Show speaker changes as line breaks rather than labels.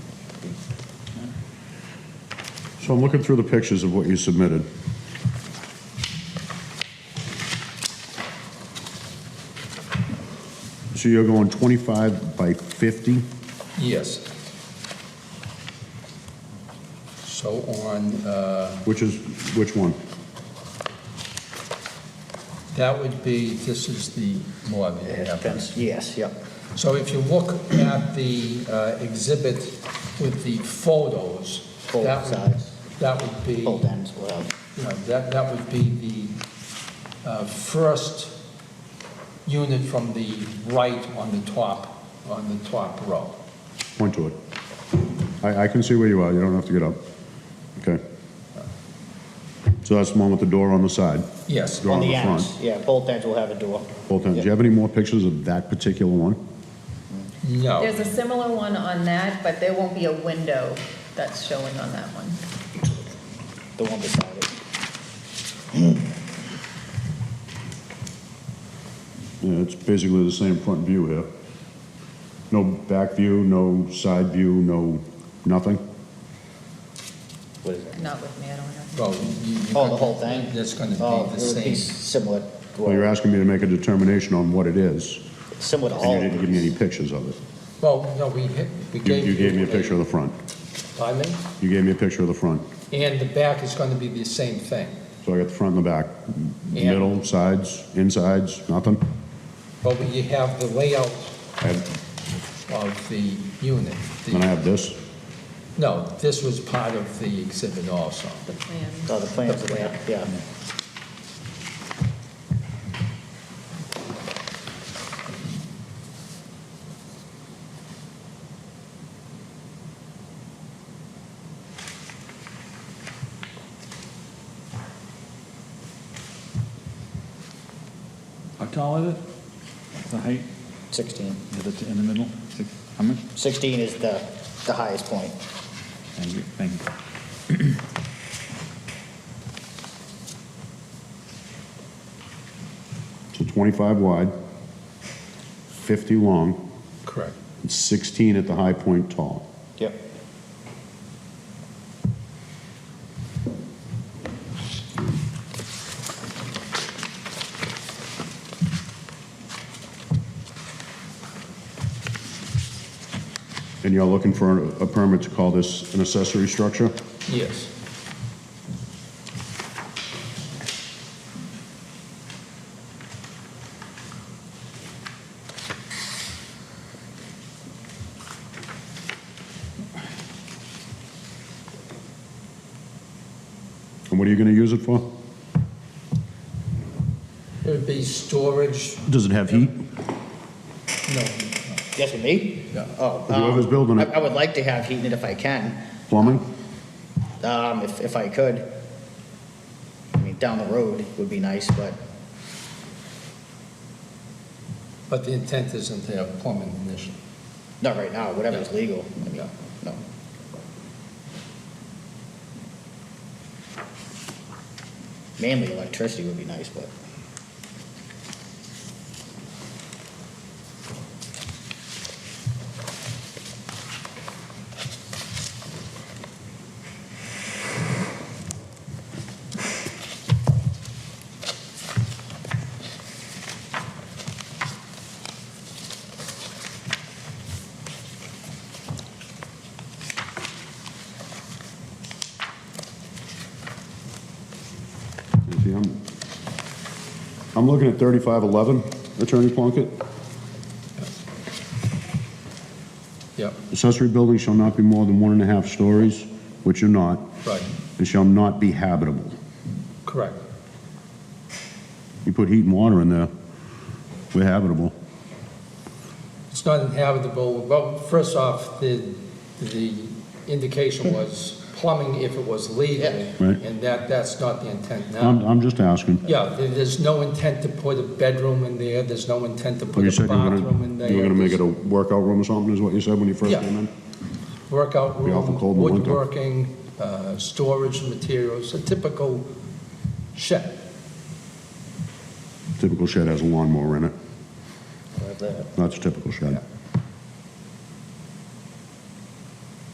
So I'm looking through the pictures of what you submitted. So you're going 25 by 50?
Yes. So on, uh,
Which is, which one?
that would be, this is the Morgan Avenue.
Fence, yes, yep.
So if you look at the uh, exhibit with the photos,
Both
that would,
sides.
that would be,
Both
you
ends, well,
know, that, that would be the uh, first unit from the right on the top, on the top row.
Point to it. I, I can see where you are, you don't have to get up. Okay. So that's the one with the door on the side,
Yes,
Door
on
on
the
the front.
ends, yeah, both ends will have a door.
both ends. Do you have any more pictures of that particular one?
no.
There's a similar one on that, but there won't be a window that's showing on that one.
The one beside it.
Yeah, it's basically the same front view here. No back view, no side view, no, nothing?
What is it?
Not with me, I don't have.
Well, you- you-
Oh, the whole thing?
That's going to
Oh,
be the
It would
same.
be similar to,
Well, you're
all-
asking me to make a determination on what it is,
similar to all
and you
of
didn't give me
these.
any pictures of it.
Well, no, we hit, we
You,
gave.
you gave me a picture of the front.
Pardon me?
You gave me a picture of the front.
And the back is going to be the same thing.
So I got the front and the back.
Yeah.
Middle, sides, insides, nothing?
But you have the layout
I have-
of the unit. The-
Then I have this.
No, this was part of the exhibit also.
The plan.
Oh, the plans are there, yeah.
How tall is it? The height,
16.
is it in the middle? Six- How much?
16 is the, the highest point.
Thank you, thank you.
So 25 wide, 50 long,
Correct.
and 16 at the high point tall.
Yep.
And you're looking for a- a permit to call this an accessory structure?
Yes.
And what are you going to use it for?
It would be storage,
Does it have heat?
no,
Yes, with me?
Yeah.
Oh.
Whoever's
um,
building it.
I I would like to have heated if I can,
Plumbing?
um, if, if I could. I mean, down the road would be nice, but
but the intent isn't to have plumbing initially.
not right now, whatever's legal. I mean,
Yeah.
No. Mainly electricity would be nice, but.
See, I'm, I'm looking at 3511, Attorney Plunkett.
Yep,
Accessory buildings shall not be more than one and a half stories, which are not,
right,
and shall not be habitable.
correct.
You put heat and water in there, we're habitable.
It's not inhabitable, well, first off, the, the indication was plumbing if it was legal.
Yeah.
Right. Um,
And that, that's not the intent now.
I'm, I'm just asking.
Yeah, there- there's no intent to put a bedroom in there, there's no intent to
You
put a
said you were
bathroom
gonna,
in there.
you were gonna make it
there's
a workout room or something, is what you said when you first
Yeah.
came in?
Workout
be awful
room,
cold in the winter.
woodworking, uh, storage materials, a typical shed.
Typical shed has a lawnmower in it,
Like that.
that's a typical shed.